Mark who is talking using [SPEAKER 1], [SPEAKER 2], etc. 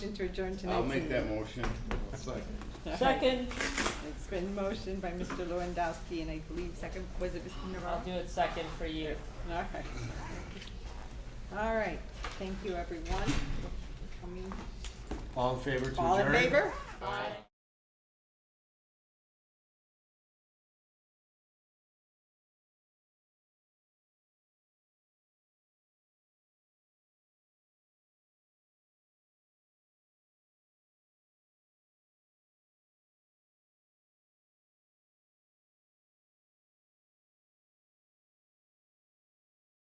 [SPEAKER 1] Motion to adjourn tonight's.
[SPEAKER 2] I'll make that
[SPEAKER 1] meeting.
[SPEAKER 2] motion.
[SPEAKER 1] All right.
[SPEAKER 3] Second,
[SPEAKER 1] It's been motioned by Mr. Lewandowski, and I believe second, was it Mr.
[SPEAKER 3] I'll
[SPEAKER 1] Navarro?
[SPEAKER 3] do it second for you.
[SPEAKER 1] All right. All right, thank you, everyone. I mean,
[SPEAKER 4] All in favor to adjourn?
[SPEAKER 1] All in favor?